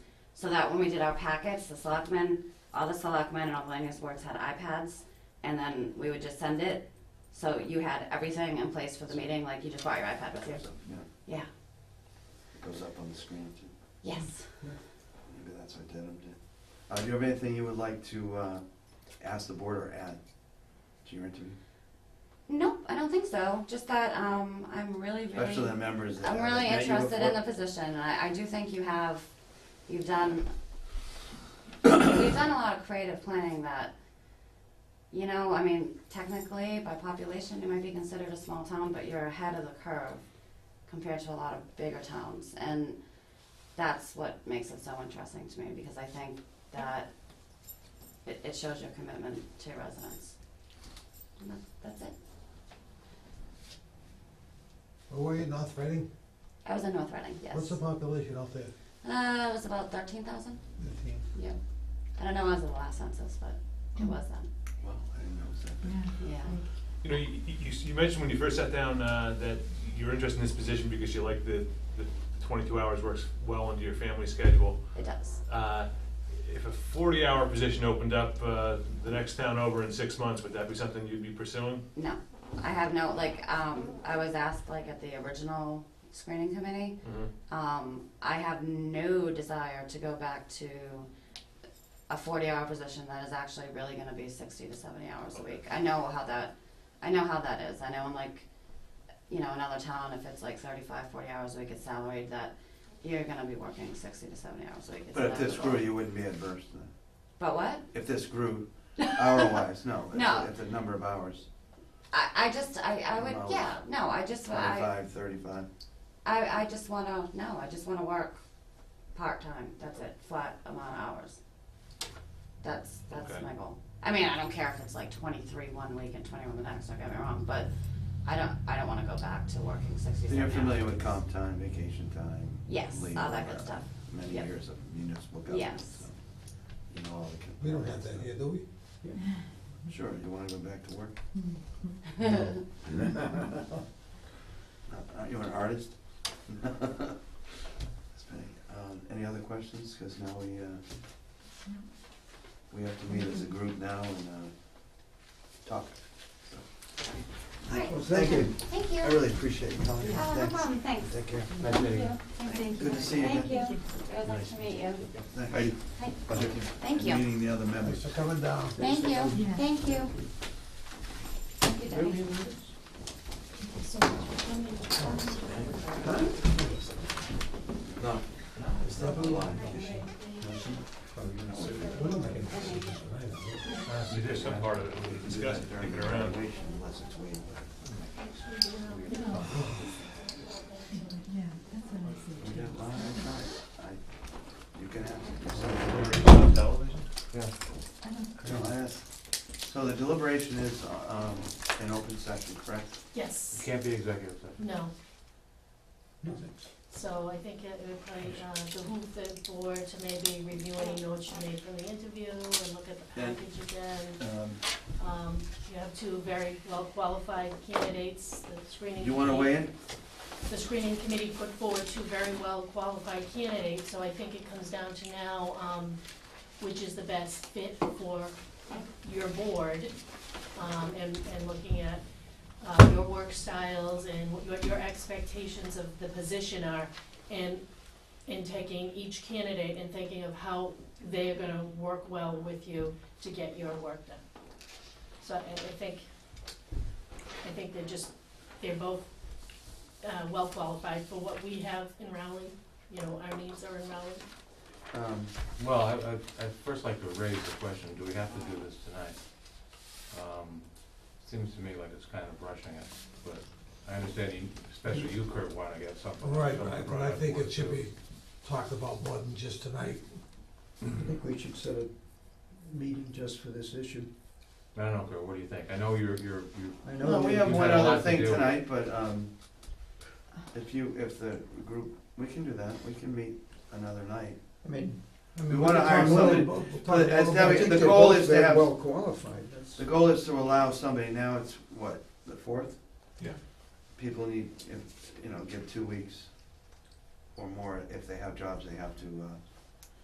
so that when we did our packets, the selectmen, all the selectmen and all the news boards had iPads, and then we would just send it. So you had everything in place for the meeting, like you just brought your iPad with you. So, yeah, Yeah. it goes up on the screen too. Yes. Maybe that's what Denham did. Uh, do you have anything you would like to, uh, ask the board or add to your interview? Nope, I don't think so. Just that um, I'm really, really. Especially the members that I'm haven't really met you interested in the before. position, and I, I do think you have, you've done, you've done a lot of creative planning that, you know, I mean, technically, by population, you might be considered a small town, but you're ahead of the curve compared to a lot of bigger towns, and that's what makes it so interesting to me, because I think that it, it shows your commitment to your residents. And that, that's it. Where were you, North Reading? I was in North Reading, yes. What's the population out there? Uh, it was about thirteen thousand. Fifteen. Yep. I don't know when was the last census, but it was then. Well, I didn't know it was that big. Yeah. You know, you, you, you mentioned when you first sat down, uh, that you're interested in this position because you like the, the twenty-two hours works well into your family schedule. It does. Uh, if a forty-hour position opened up, uh, the next town over in six months, would that be something you'd be pursuing? No. I have no like um I was asked like at the original screening committee. Um, I have no desire to go back to a forty hour position that is actually really gonna be sixty to seventy hours a week. I know how that I know how that is. I know in like you know, another town if it's like 35, 40 hours a week it's salaried that you're gonna be working sixty to seventy hours a week. It's But if this inevitable. grew, you wouldn't be adverse to that. But what? If this grew, hour-wise, no. If- No. If the number of hours, I, I just I, I would No. yeah no I just I, 25, 35. I I just want to no I just want to work part time that's it flat amount of hours that's that's Okay. my goal I mean I don't care if it's like 23 one week and 21 the next don't get me wrong but I don't I don't want to go back to working 60 So 70 you're familiar hours. with comp time, vacation time? yes leave, all that good uh, stuff Many Yep. years of municipal government, Yes. so you know all the. con- We don't have that here, do we? Sure, you wanna go back to work? Aren't you an artist? Um, Any other questions? Because now we, uh, we have to meet as a group now and uh, talk. so. all right Well, thank you. thank you I really appreciate you coming. oh no Thanks. problem thanks Take care. Nice meeting you. thank you Good to see you thank you again. it was nice to meet you Thank thank, you. thank you Meeting the other Thanks members. for coming down. Thank you, Yeah. thank you. Thank you, Debbie. No. Step in line. We're not making a decision tonight, are we? There's some part of it we discussed, thinking around. Unless it's waived. Yeah, that's what I said. We got a lot of time. I- You can have. I don't- No, I asked. So the deliberation is um, an open session, correct? Yes, Can't be executive session. no, No. so I think it would probably uh, behoove the board to maybe review any notes you made from the interview and look at the Yeah. package again. Um, Um, you have two very well-qualified candidates, the screening Do committee. you want to weigh in? The screening committee put forward two very well-qualified candidates, so I think it comes down to now, um, which is the best fit for your board, um, and, and looking at, uh, your work styles and what your, your expectations of the position are, and, and taking each candidate and thinking of how they are gonna work well with you to get your work done. So I, I think, I think they're just, they're both, uh, well qualified for what we have in Rowley, you know, our needs are in Rowley. Um, Well, I, I, I'd first like to raise the question, do we have to do this tonight? Um, Seems to me like it's kind of rushing it, but I understand you, especially you, Kurt, wanna get something. Right, something right, but brought I up think for it should too. be talked about more than just tonight. I think we should set a meeting just for this issue. I don't know, Kurt, what do you think? I know you're, you're, you, I No, know we that- have you've one had a lot other to thing do. tonight, but um, if you, if the group, we can do that, we can meet another night. I mean, I mean, We wanna can hire talk a little somebody- about- we'll talk but a little as about- I Debbie- think the they're goal both is to very have- well qualified. That's- The goal is to allow somebody, now it's what, the fourth? Yeah. People need, if, you know, give two weeks or more if they have jobs, they have to uh,